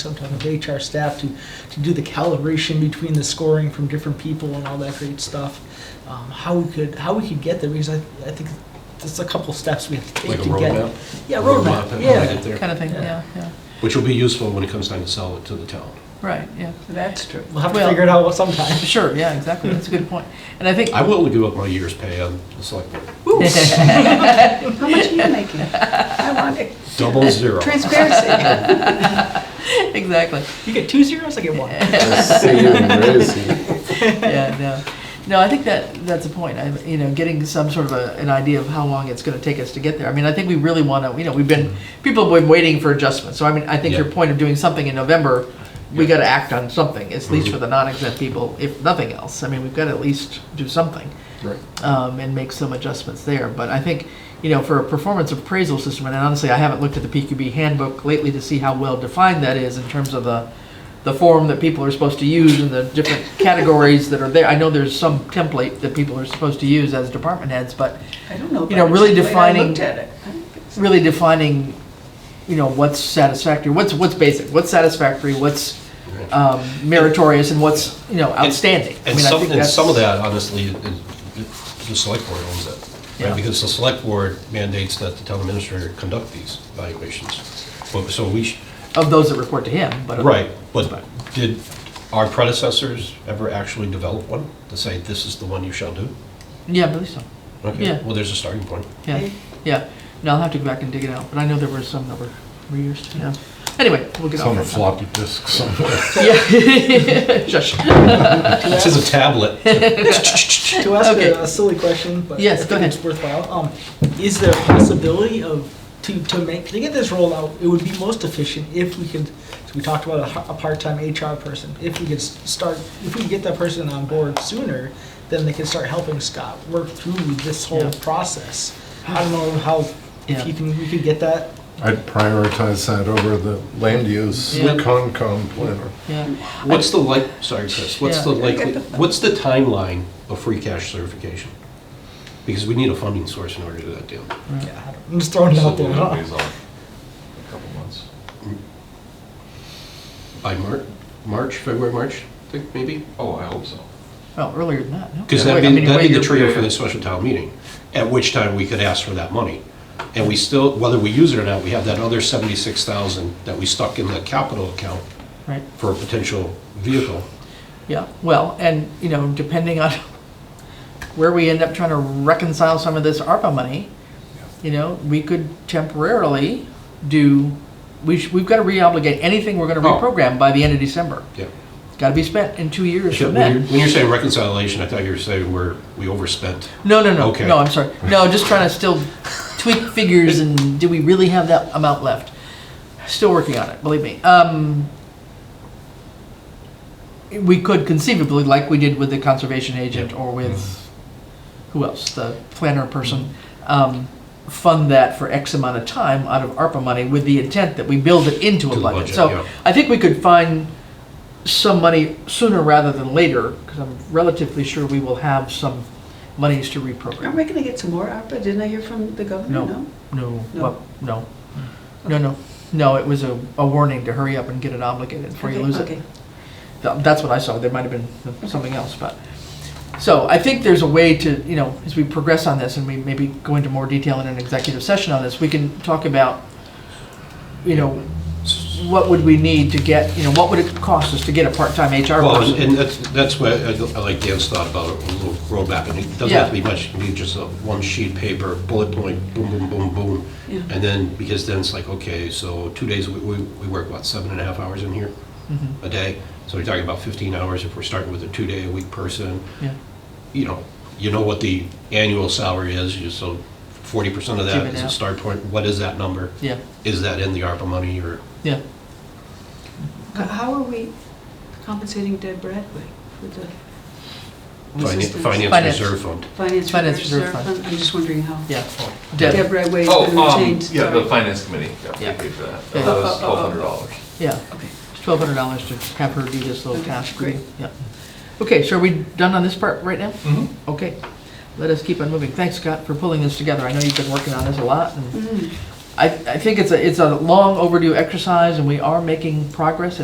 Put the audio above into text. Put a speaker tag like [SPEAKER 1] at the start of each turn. [SPEAKER 1] sometime with HR staff to, to do the calibration between the scoring from different people and all that great stuff. Um, how we could, how we could get there, because I, I think there's a couple steps we have to
[SPEAKER 2] Like
[SPEAKER 1] take
[SPEAKER 2] a
[SPEAKER 1] to get.
[SPEAKER 2] roadmap,
[SPEAKER 1] Yeah,
[SPEAKER 2] Roadmap,
[SPEAKER 1] roadmap,
[SPEAKER 2] how to
[SPEAKER 1] yeah.
[SPEAKER 2] get there.
[SPEAKER 3] kind of thing,
[SPEAKER 1] Yeah.
[SPEAKER 3] yeah, yeah,
[SPEAKER 2] which will be useful when it comes time to sell it to the town.
[SPEAKER 3] right, yeah, that's true.
[SPEAKER 1] We'll have to
[SPEAKER 3] Well,
[SPEAKER 1] figure it out sometime.
[SPEAKER 3] Sure, yeah, exactly, that's a good point. And I think,
[SPEAKER 2] I will give up my year's pay on the select board,
[SPEAKER 4] How much are you making? I want it.
[SPEAKER 2] double zero.
[SPEAKER 4] Transparency.
[SPEAKER 3] exactly,
[SPEAKER 1] You get two zeros, I get one.
[SPEAKER 3] yeah, no. No, I think that, that's a point, I, you know, getting some sort of a, an idea of how long it's gonna take us to get there. I mean, I think we really wanna, you know, we've been, people have been waiting for adjustments, so I mean, I think your
[SPEAKER 2] Yeah.
[SPEAKER 3] point of doing something in November, we
[SPEAKER 2] Yeah.
[SPEAKER 3] gotta act on something, at least
[SPEAKER 2] Mhm.
[SPEAKER 3] for the non-exempt people, if nothing else. I mean, we've gotta at least do something.
[SPEAKER 2] Right.
[SPEAKER 3] um, and make some adjustments there. But I think, you know, for a performance appraisal system, and honestly, I haven't looked at the PQB handbook lately to see how well defined that is in terms of the, the form that people are supposed to use and the different categories that are there. I know there's some template that people are supposed to use as department heads, but
[SPEAKER 4] I don't know.
[SPEAKER 3] You know,
[SPEAKER 4] but
[SPEAKER 3] really
[SPEAKER 4] the way I
[SPEAKER 3] defining-
[SPEAKER 4] looked at it. I don't think so.
[SPEAKER 3] really defining, you know, what's satisfactory, what's, what's basic, what's satisfactory, what's um, meritorious, and what's, you know, outstanding. I
[SPEAKER 2] And
[SPEAKER 3] mean, I
[SPEAKER 2] some,
[SPEAKER 3] think
[SPEAKER 2] and some of
[SPEAKER 3] that's-
[SPEAKER 2] that, honestly, is- is- the select board owns it,
[SPEAKER 3] Yeah.
[SPEAKER 2] right? Because the select board mandates that the town administrator conduct these evaluations. But- So we, sh-
[SPEAKER 3] Of those that report to him, but. uh,
[SPEAKER 2] right, but did our predecessors ever actually develop one to say, this is the one you shall do?
[SPEAKER 3] Yeah, I believe so.
[SPEAKER 2] Okay,
[SPEAKER 3] Yeah.
[SPEAKER 2] Well, there's a starting point.
[SPEAKER 3] Yeah, yeah. No, I'll have to go back and dig it out, but I know there were some that were reused, yeah. Anyway, we'll get
[SPEAKER 5] It's
[SPEAKER 3] off
[SPEAKER 5] on a
[SPEAKER 3] that.
[SPEAKER 5] floppy disk somewhere.
[SPEAKER 3] Yeah, shush.
[SPEAKER 2] This is a tablet.
[SPEAKER 1] To ask
[SPEAKER 3] Okay.
[SPEAKER 1] a, a silly question, but
[SPEAKER 3] Yes,
[SPEAKER 1] I think
[SPEAKER 3] go ahead.
[SPEAKER 1] it's worthwhile. Um, is there a possibility of to, to make to get this rolled out? It would be most efficient if we could. So we talked about a, h- a part-time HR person. If we could s- start, if we could get that person on board sooner, then they could start helping Scott work through this whole
[SPEAKER 3] Yeah.
[SPEAKER 1] process. I don't know how
[SPEAKER 3] Yeah.
[SPEAKER 1] if you can we could get that.
[SPEAKER 5] I'd prioritize that over the land use
[SPEAKER 3] Yeah.
[SPEAKER 5] Concom planner.
[SPEAKER 3] Yeah,
[SPEAKER 2] What's the like, sorry, Chris, what's the
[SPEAKER 3] Yeah.
[SPEAKER 2] likely, what's the timeline of free cash certification? Because we need a funding source in order to do that deal.
[SPEAKER 1] Yeah, I don't- I'm just throwing it out there.
[SPEAKER 2] By Mar- March, February, March, I think, maybe?
[SPEAKER 6] Oh, I hope so.
[SPEAKER 3] well, earlier than that, no.
[SPEAKER 2] Because
[SPEAKER 3] Wait, I
[SPEAKER 2] that'd be,
[SPEAKER 3] mean,
[SPEAKER 2] that'd be
[SPEAKER 3] wait,
[SPEAKER 2] the trio
[SPEAKER 6] yeah.
[SPEAKER 2] for the special town meeting, at which time we could ask for that money. And we still, whether we use it or not, we have that other seventy-six thousand that we stuck in the capital account
[SPEAKER 3] Right,
[SPEAKER 2] for a potential vehicle.
[SPEAKER 3] yeah, well, and, you know, depending on where we end up trying to reconcile some of this ARPA money, you know, we could temporarily do, we, sh- we've got to reobligate anything we're going to
[SPEAKER 2] Oh.
[SPEAKER 3] reprogram by the end of December.
[SPEAKER 2] Yeah.
[SPEAKER 3] It's got to be spent in two years from
[SPEAKER 2] When
[SPEAKER 3] then.
[SPEAKER 2] you're- when you're saying reconciliation, I thought you were saying we're, we overspent.
[SPEAKER 3] No, no, no,
[SPEAKER 2] Okay.
[SPEAKER 3] no. I'm sorry. No, just trying to still tweak figures and do we really have that amount left? Still working on it, believe me. Um, we could conceivably, like we did with the conservation agent or with
[SPEAKER 2] Mm-hmm.
[SPEAKER 3] who else, the planner person, um, fund that for X amount of time out of ARPA money with the intent that we build it into a
[SPEAKER 2] To the
[SPEAKER 3] budget.
[SPEAKER 2] budget,
[SPEAKER 3] so
[SPEAKER 2] yeah.
[SPEAKER 3] I think we could find some money sooner rather than later because I'm relatively sure we will have some monies to reprogram.
[SPEAKER 4] Aren't we gonna get some more ARPA? Didn't I hear from the governor?
[SPEAKER 3] No. No, well, no, no, no, no, it was a, a warning to hurry up and get it obligated before you
[SPEAKER 4] Okay,
[SPEAKER 3] lose it.
[SPEAKER 4] okay.
[SPEAKER 3] Th- That's what I saw, there might have been something else, but, so I think there's a way to, you know, as we progress on this and we maybe go into more detail in an executive session on this, we can talk about, you know, what would we need to get, you know, what would it cost us to get a part-time HR
[SPEAKER 2] Well, and-
[SPEAKER 3] person?
[SPEAKER 2] and that's, that's why I I like Dan's thought about a little roadmap, and it doesn't have to be
[SPEAKER 3] Yeah.
[SPEAKER 2] much, it can be just a one sheet paper, bullet point, boom, boom, boom, boom.
[SPEAKER 4] Yeah.
[SPEAKER 2] And then, because then it's like, okay, so two days, we, we we work, what, seven and a half hours in here
[SPEAKER 3] Mm-hmm.
[SPEAKER 2] a day? So we're talking about 15 hours if we're starting with a two-day-a-week person.
[SPEAKER 3] Yeah,
[SPEAKER 2] You know, you know what the annual salary is, you- so 40% of
[SPEAKER 3] Give
[SPEAKER 2] that
[SPEAKER 3] it
[SPEAKER 2] is a
[SPEAKER 3] out.
[SPEAKER 2] start point. What is that number?
[SPEAKER 3] yeah,
[SPEAKER 2] Is that in the ARPA money, or?
[SPEAKER 3] yeah.
[SPEAKER 4] H- How are we compensating Deb Bradway for the
[SPEAKER 2] Finance
[SPEAKER 4] Assistance.
[SPEAKER 2] Finance
[SPEAKER 3] Finance.
[SPEAKER 2] Reserve Fund.
[SPEAKER 4] finance
[SPEAKER 3] Finance
[SPEAKER 4] reserve
[SPEAKER 3] reserve fund.
[SPEAKER 4] fund? I'm just wondering how.
[SPEAKER 3] Yeah.
[SPEAKER 4] Deb
[SPEAKER 3] Deb,
[SPEAKER 4] Bradway has been
[SPEAKER 6] Oh, um,
[SPEAKER 4] retained.
[SPEAKER 6] yeah, the
[SPEAKER 4] Sorry.
[SPEAKER 6] finance committee, yeah,
[SPEAKER 3] Yeah.
[SPEAKER 6] we paid for that.
[SPEAKER 3] Yeah.
[SPEAKER 6] That was
[SPEAKER 4] Oh, oh, oh, oh.
[SPEAKER 6] twelve hundred dollars.
[SPEAKER 3] yeah,
[SPEAKER 4] Okay.
[SPEAKER 3] twelve hundred dollars to have her do this little
[SPEAKER 4] Okay,
[SPEAKER 3] task.
[SPEAKER 4] great.
[SPEAKER 3] Yeah. Okay, so are we done on this part right now?
[SPEAKER 6] Mhm.
[SPEAKER 3] Okay, let us keep on moving. Thanks, Scott, for pulling this together. I know you've been working on this a lot, and
[SPEAKER 4] Mm,
[SPEAKER 3] I, I think it's a, it's a long overdue exercise, and we are making progress.